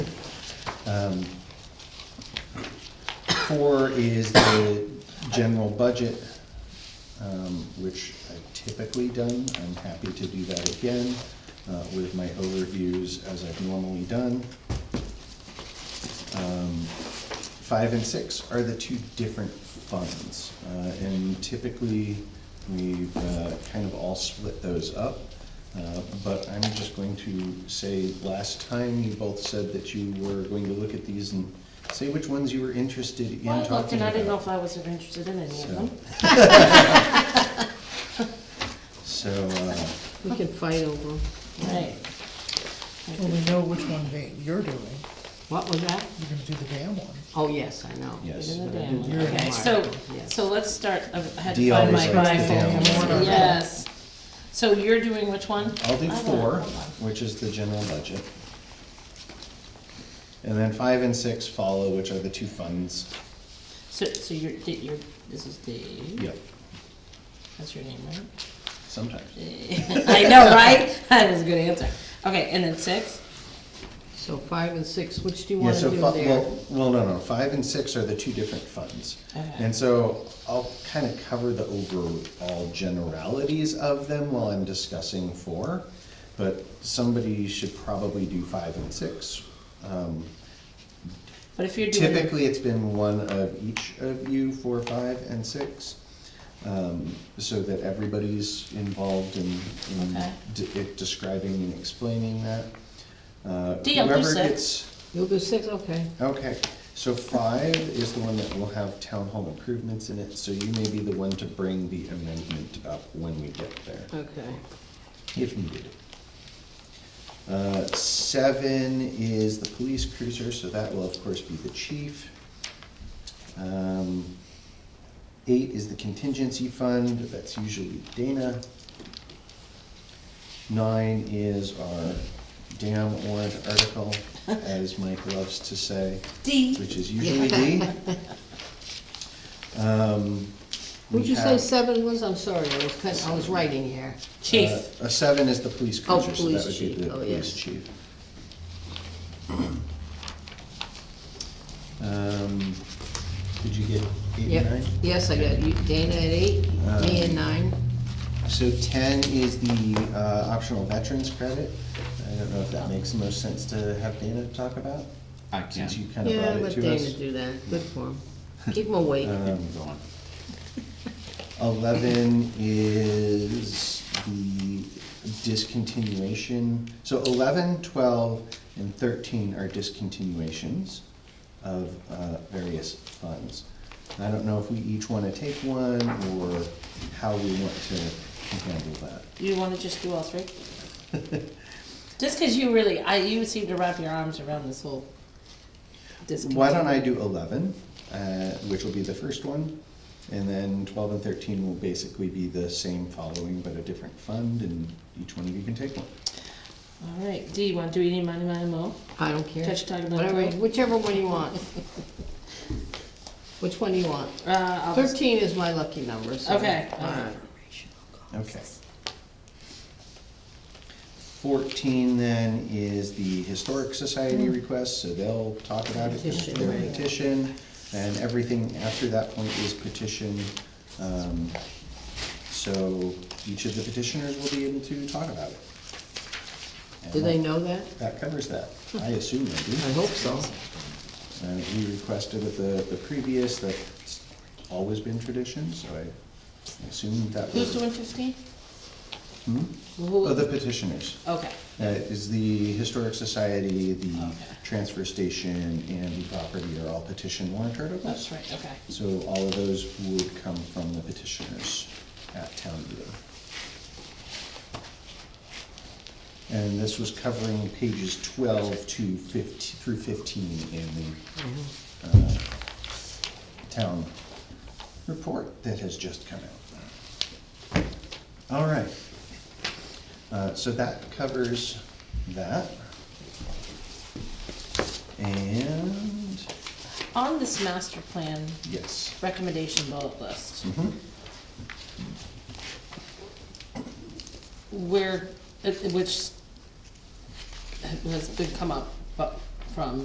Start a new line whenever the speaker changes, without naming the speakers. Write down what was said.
Um, Four is the general budget, um, which I've typically done. I'm happy to do that again uh, with my overviews as I've normally done. Um, Five and six are the two different funds, uh, and typically, we've uh, kind of all split those up. Uh, But I'm just going to say, last time you both said that you were going to look at these and say which ones you were interested in
Well, I looked
talking
and I didn't know
about.
if I was ever interested in any of
So-
them.
So, uh,
We can fight over them.
Right.
Well, we know which one that you're doing,
What was that?
you're gonna do the dam one.
Oh, yes, I know.
Yes.
Get in the
Damn,
damn-
You're
Okay,
Mark,
so,
yes.
so let's start, I had
Dee
to find
always
my
likes the
rifle.
damn
one.
Yes. So you're doing which one?
I'll do
I don't-
four,
hold on.
which is the general budget. And then five and six follow, which are the two funds.
So, so you're, Dave- you're, this is Dave,
Yep,
that's your name, right?
sometimes.
Dave. I know, right? That was a good answer. Okay, and then six?
So five and six, which do you
Yeah,
wanna
so,
do
fi-
there?
well, well, no, no, five and six are the two different funds.
Okay.
And so I'll kind of cover the overall generalities of them while I'm discussing four. But somebody should probably do five and six. Um,
But if you're doing.
Typically, it's been one of each of you, four, five, and six, um, so that everybody's involved in, in
Okay.
de- it describing and explaining that. Uh,
Deal, do
whoever
six.
gets-
You'll do six, okay.
Okay, so five is the one that will have town hall improvements in it, so you may be the one to bring the amendment up when we get there
Okay.
if needed. Uh, Seven is the police cruiser, so that will of course be the chief. Um, Eight is the contingency fund, that's usually Dana. Nine is our damn warrant article, as Mike loves to say,
D.
which is usually D. Um, we
Would you say
have-
seven was? I'm sorry, I was, cut- I was writing here.
Chief.
uh, A seven is the police
Oh,
cruiser, so that
police
would be
chief.
the
Oh,
police
yes.
chief. Um, Did you get eight
Yep.
and nine?
Yes, I got you, Dana at eight, me at
Um,
nine.
So ten is the uh, optional veterans credit. I don't know if that makes the most sense to have Dana talk about,
I
since you
can.
kind of
Yeah,
brought it
let
to
Dana
us.
do that, good for him. Keep him awake.
Um,
Go on.
Eleven is the discontinuation, so eleven, twelve, and thirteen are discontinuations of uh, various funds. I don't know if we each wanna take one, or how we want to handle that.
You wanna just do all three? Just cause you really, I, you seem to wrap your arms around this whole discontent.
Why don't I do eleven, uh, which will be the first one, and then twelve and thirteen will basically be the same following, but a different fund, and each one of you can take one.
All right, D, you wanna do any money, money, mo?
I don't care.
Touch talking about
Whatever,
that.
whichever one you want. Which one do you want?
Uh, I'll just-
Thirteen is my lucky number, so.
Okay, all
all
right.
right.
Okay. Fourteen then is the Historic Society request, so they'll talk about it,
Hmm. Petition,
their
right.
petition, and everything after that point is petition. Um, So each of the petitioners will be able to talk about it. And
Do they
that-
know that?
That covers that, I assume they do.
I hope so.
Uh, we requested at the, the previous, that's always been tradition, so I assume that was.
Who's doing fifteen?
Hmm?
Who-
Oh, the petitioners.
Okay,
Uh, is the Historic Society, the
Okay.
transfer station, and the property are all petition warrant articles.
that's right, okay.
So all of those would come from the petitioners at town meeting. And this was covering pages twelve to fifteen, through fifteen in the, uh, town report that has just come out. All right. Uh, so that covers that. And,
On this master plan
yes.
recommendation bullet list,
Mhm.
where, it- which has been come up, but from